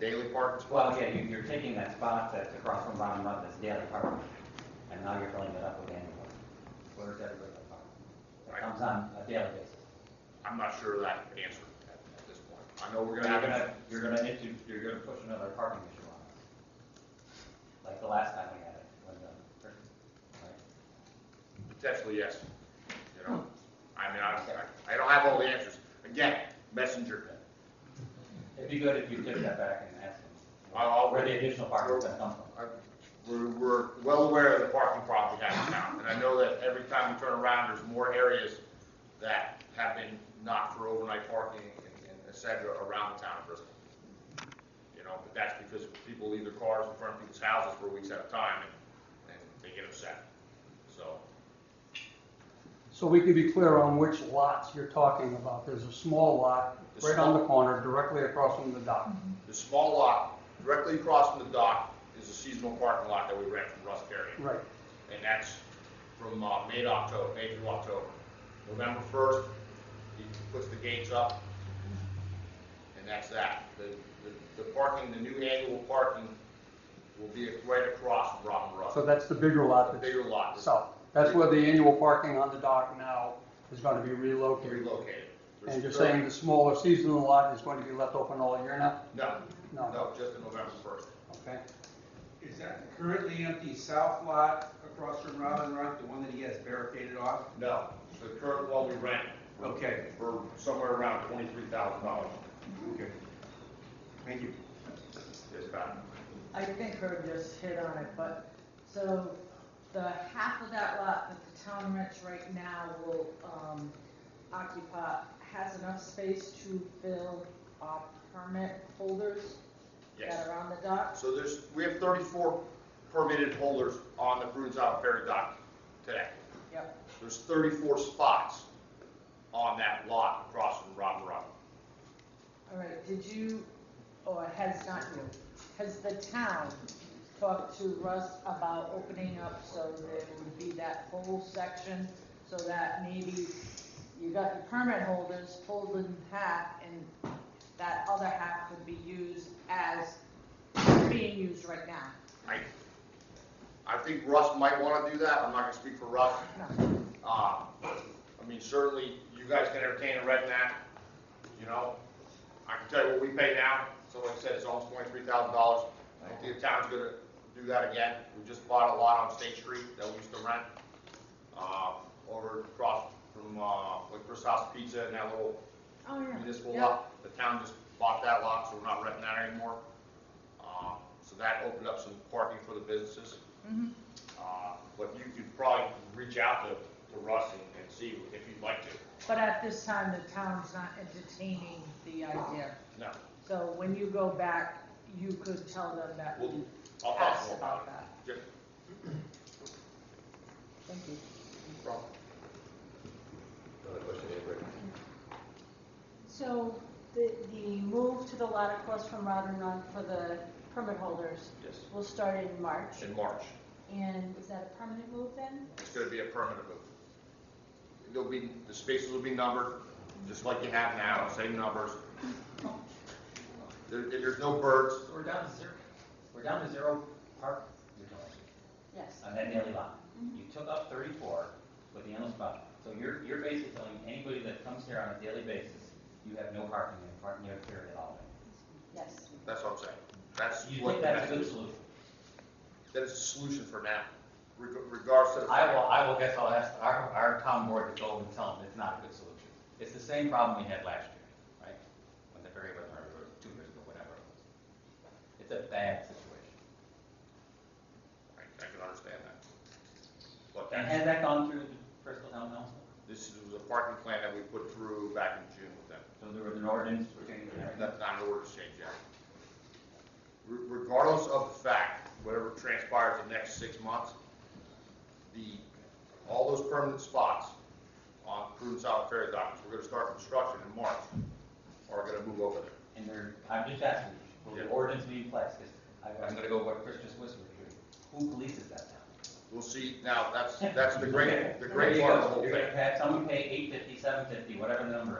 daily parking spot? Well, yeah, you, you're taking that spot that's across from Bottom Up, that's daily parking, and now you're filling it up with annual. Where's that regular parking? That Right. comes on a daily basis. I'm not sure of that answer at, at this point. I know we're You're gonna have. gonna, you're gonna need to, you're gonna push another parking issue on us. Like the last time we had it, when the, right? Potentially, yes. You Hmm. know, I mean, I, I- I don't have all the answers. Again, messenger. It'd be good if you took that back and asked them. I'll- I'll- Where the additional parking's gonna come from. I- We're, we're well aware of the parking problem we have in town, and I know that every time we turn around, there's more areas that have been not for overnight parking and and et cetera around the town of Bristol. You know, but that's because people leave their cars in front of people's houses for weeks at a time, and, and they get upset, so. So we can be clear on which lots you're talking about. There's a small lot The right small- Mm-hmm. on the corner, directly across from the dock. The small lot directly across from the dock is a seasonal parking lot that we rent from Russ Carrier. Right. and that's from uh, May to October, May through October. November first, he puts the gates up, and that's that. The, the, the parking, the new annual parking will be right across from Robin Russ. So that's the bigger The lot that's bigger lot is south. That's where the annual parking on the dock now is going to be relocated. relocated. There's And you're thirty- saying the smaller seasonal lot is going to be left open all year now? No, No. no, just the November first. Okay. Is that the currently empty south lot across from Robin Rock, the one that he has barricaded off? No, the current one we rent Okay, for somewhere around twenty-three thousand dollars okay. Thank you. is about. I think Herb just hit on it, but, so, the half of that lot that the town rents right now will, um, occupy, has enough space to fill, uh, permit holders Yes. that are on the dock? So there's, we have 34 permitted holders on the Prudence Island Ferry dock today. Yep. There's 34 spots on that lot across from Rob Rock. All right, did you, or has not you, has the town talked to Russ about opening up so there would be that whole section? So that maybe you got the permit holders pulled in half and that other half could be used as being used right now? I, I think Russ might want to do that, I'm not going to speak for Russ. No, Uh, I mean, certainly, you guys can entertain a red mat, you know? I can tell you what we pay now, someone said it's almost $23,000. I don't think the town's gonna do that again. We just bought a lot on State Street that we used to rent, uh, over across from, uh, like Chris House Pizza and that little oh, yeah. municipal Yeah. lot. The town just bought that lot, so we're not renting that anymore. Uh, So that opened up some parking for the businesses. Mhm. Uh, But you could probably reach out to, to Russ and, and see if you'd like to. But at this time, the town's not entertaining the idea. No, So when you go back, you could tell them that we'll, you I'll talk asked more about about that. it. Just- Thank you. So the, the move to the lot across from Robin Run for the permit holders Yes, will start in March, in March. and is that a permanent move then? It's gonna be a permanent move. There'll be, the spaces will be numbered, just like you have now, same numbers. There, there's no birds, So we're down to zero, we're down to zero park, you're doing, Yes. on that daily lot. Mhm. You took up thirty-four with the endless spot, so you're, you're basically telling anybody that comes here on a daily basis, you have no parking in front, near here at all. Yes. that's what I'm saying. That's You what think the that's a message good is. solution? That is a solution for now, reg- regardless of. the I fact- will, I will guess I'll ask our, our town board to go and tell them it's not a good solution. It's the same problem we had last year, right? When the ferry was, or two years ago, whatever it was. It's a bad situation. I I can understand that. But And that's, has that gone through the Bristol Town Council? this was a parking plan that we put through back in June with them. So there was an ordinance change and everything? That's not an order to change that. Re- Regardless of the fact, whatever transpires the next six months, the, all those permanent spots on Prudence Island Ferry docks, we're gonna start construction in March, are gonna move over there. And there, I'm just asking, will the Yeah. ordinance be in place? 'Cause I- I'm gonna go what Chris just whispered here. Who polices that now? We'll see, now, that's, that's the great, the great part of the whole You're thing. gonna have someone pay eight fifty, seven fifty, whatever the number is.